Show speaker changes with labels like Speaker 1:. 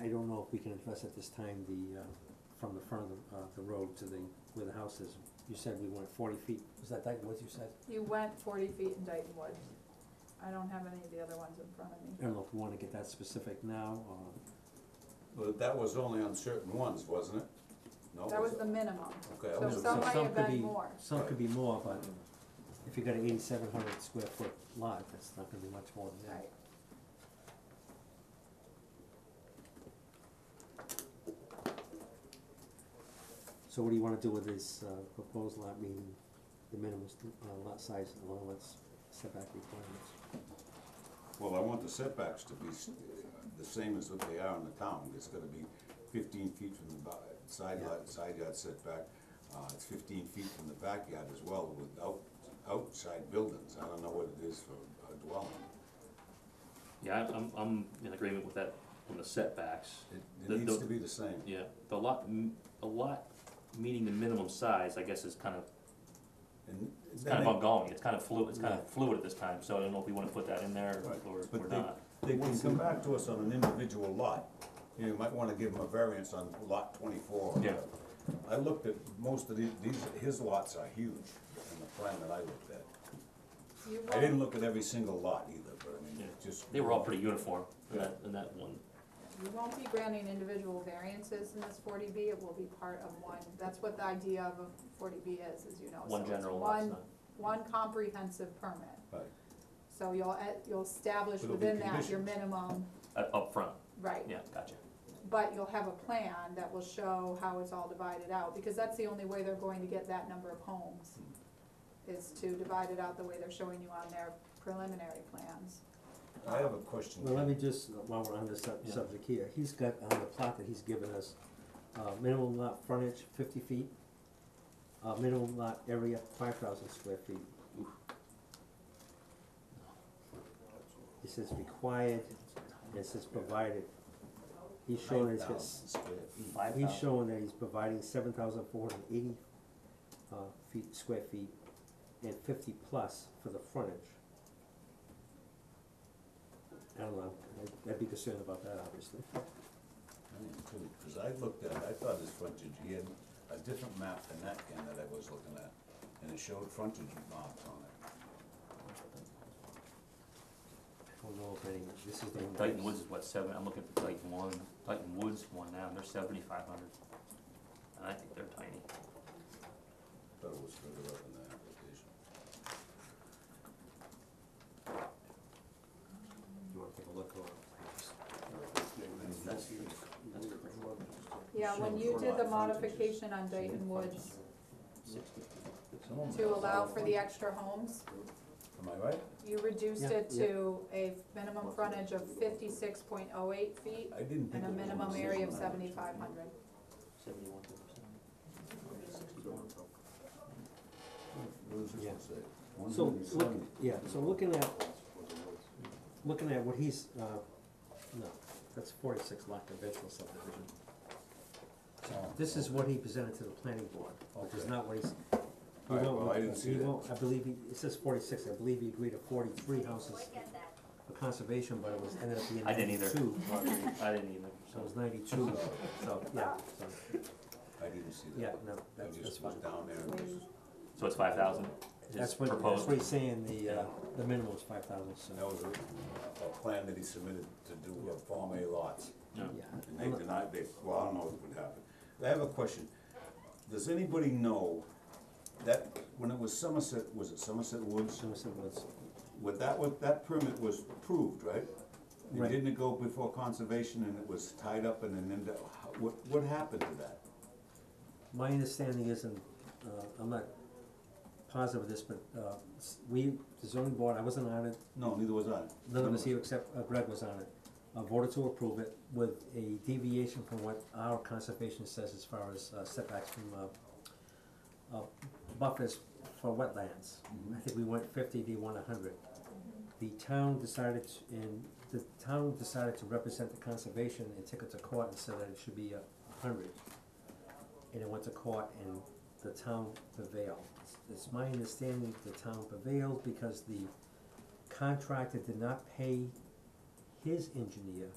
Speaker 1: I don't know if we can address at this time the, uh, from the front of the, uh, the road to the, where the house is. You said we went forty feet, was that Dyton Woods you said?
Speaker 2: You went forty feet in Dayton Woods. I don't have any of the other ones in front of me.
Speaker 1: I don't know if we wanna get that specific now, or,
Speaker 3: Well, that was only on certain ones, wasn't it? No,
Speaker 2: That was
Speaker 3: it-
Speaker 2: the minimum.
Speaker 3: Okay, I
Speaker 2: So
Speaker 1: No,
Speaker 3: was,
Speaker 2: some might
Speaker 1: some
Speaker 2: have
Speaker 1: could
Speaker 2: been
Speaker 1: be-
Speaker 2: more.
Speaker 1: some could be more, but if you got an eighty-seven hundred square foot lot, that's not gonna be much more than that.
Speaker 2: Right.
Speaker 1: So what do you wanna do with this, uh, proposed lot, meaning the minimum, st- uh, lot size along with setback requirements?
Speaker 3: well, I want the setbacks to be s- uh, the same as what they are in the town. It's gonna be fifteen feet from the ba- side
Speaker 1: Yeah.
Speaker 3: lot, side yard setback. Uh, it's fifteen feet from the backyard as well with out, outside buildings. I don't know what it is for a dwelling.
Speaker 4: Yeah, I'm, I'm, I'm in agreement with that on the setbacks.
Speaker 3: It,
Speaker 4: The-
Speaker 3: it needs
Speaker 4: the-
Speaker 3: to be the same.
Speaker 4: Yeah, the lot, m- a lot meeting the minimum size, I guess, is kind of,
Speaker 3: And
Speaker 4: it's
Speaker 3: then
Speaker 4: kind of
Speaker 3: they-
Speaker 4: ongoing, it's kind of fluid, it's kind
Speaker 1: Yeah.
Speaker 4: of fluid at this time, so I don't know if we wanna put that in there
Speaker 3: Right,
Speaker 4: or,
Speaker 3: but
Speaker 4: or
Speaker 3: they-
Speaker 4: not.
Speaker 3: They can come back to us on an individual lot. You know, you might wanna give them a variance on lot twenty-four. or
Speaker 4: Yeah.
Speaker 3: whatever. I looked at most of these, these, his lots are huge in the plan that I looked at.
Speaker 2: You
Speaker 3: I didn't
Speaker 2: won't,
Speaker 3: look at every single lot either, but I mean,
Speaker 4: Yeah.
Speaker 3: just.
Speaker 4: They were all pretty uniform in that, in that one.
Speaker 2: you won't be granting individual variances in this forty B, it will be part of one. That's what the idea of a forty B is, as you know.
Speaker 4: One
Speaker 2: So it's
Speaker 4: general lot
Speaker 2: one-
Speaker 4: size.
Speaker 2: One comprehensive permit.
Speaker 3: Right.
Speaker 2: So you'll, at- you'll establish
Speaker 3: But it'll be
Speaker 2: within that your
Speaker 3: conditions.
Speaker 2: minimum,
Speaker 4: uh, Up upfront,
Speaker 2: right.
Speaker 4: yeah, gotcha.
Speaker 2: But you'll have a plan that will show how it's all divided out, because that's the only way they're going to get that number of homes, is to divide it out the way they're showing you on their preliminary plans.
Speaker 3: I have a question.
Speaker 1: Well, let me just, while we're on this sub-
Speaker 4: Yeah.
Speaker 1: subject here, he's got, on the plot that he's given us, uh, minimum lot frontage fifty feet, uh, minimum lot area five thousand square feet. It says required, and it says provided. He's showing that he's got, s-
Speaker 3: 9,000 square feet.
Speaker 4: Five
Speaker 1: he's
Speaker 4: thousand.
Speaker 1: showing that he's providing seven thousand four hundred eighty, uh, feet, square feet, and fifty plus for the frontage. I don't know, I'd, I'd be concerned about that, obviously.
Speaker 3: I am too, Cause I looked at, it, I thought his frontage, he had a different map than that can that I was looking at, and it showed frontage marks on it.
Speaker 1: I don't know if any, this is the.
Speaker 4: Dyton Woods is what, seven, I'm looking for Dyton one, Dyton Woods one now, and they're seventy-five hundred. And I think they're tiny.
Speaker 3: Thought it was further up in the application.
Speaker 1: You wanna take a look or?
Speaker 4: That's, that's great.
Speaker 2: Yeah, when you did the modification on Dayton Woods to allow for the extra homes,
Speaker 3: Am I right?
Speaker 2: you reduced it
Speaker 1: Yeah, yeah.
Speaker 2: to a minimum frontage of fifty-six point oh eight feet
Speaker 3: I didn't
Speaker 2: and
Speaker 3: think.
Speaker 2: a
Speaker 3: it was
Speaker 2: minimum
Speaker 3: on
Speaker 2: area of
Speaker 3: this.
Speaker 2: seventy-five hundred.
Speaker 4: Seventy-one percent.
Speaker 3: What does this
Speaker 1: Yeah.
Speaker 3: one say? One
Speaker 1: So,
Speaker 3: hundred and
Speaker 1: look,
Speaker 3: seventy.
Speaker 1: yeah, so looking at, looking at what he's, uh, no, that's forty-six lot conventional subdivision.
Speaker 3: Oh,
Speaker 1: This is what he presented to the planning board, which is
Speaker 3: Okay.
Speaker 1: not what he's. he
Speaker 3: All right,
Speaker 1: won't-
Speaker 3: well, I didn't see
Speaker 1: he
Speaker 3: that.
Speaker 1: won't- I believe, he- it says forty-six, I believe he agreed to forty-three houses for conservation, but it was, ended up being
Speaker 4: I didn't either.
Speaker 1: ninety-two.
Speaker 4: I didn't either,
Speaker 1: So it
Speaker 4: so,
Speaker 1: was ninety-two, so, yeah, so,
Speaker 3: I didn't see that.
Speaker 1: yeah, no,
Speaker 3: I
Speaker 1: that's, that's
Speaker 3: just was
Speaker 1: fine.
Speaker 3: down there and just,
Speaker 4: so it's five thousand is
Speaker 1: That's what, that's
Speaker 4: proposed.
Speaker 1: what he's saying, the, uh, the minimum is five thousand,
Speaker 3: that
Speaker 1: so,
Speaker 3: was a, a plan that he submitted to do a Form A lots.
Speaker 4: Yeah.
Speaker 1: yeah.
Speaker 3: And they denied, they, well, I don't know what would happen. I have a question. Does anybody know that, when it was Somerset, was it Somerset Woods?
Speaker 1: Somerset Woods,
Speaker 3: With that, with, that permit was approved, right? And
Speaker 1: Right.
Speaker 3: didn't it go before conservation and it was tied up and then, ended- what, what happened to that?
Speaker 1: my understanding is, and, uh, I'm not positive of this, but, uh, s- we, the zoning board, I wasn't on it,
Speaker 3: No, neither was I.
Speaker 1: none of us here except uh, Greg was on it, uh, voted to approve it with a deviation from what our conservation says as far as uh, setbacks from, uh, uh, buffers for wetlands. I think we went fifty, they went hundred. The town decided, to- and the town decided to represent the conservation and took it to court and said that it should be a hundred. And it went to court and the town prevailed. It's- It's my understanding the town prevailed because the contractor did not pay his engineer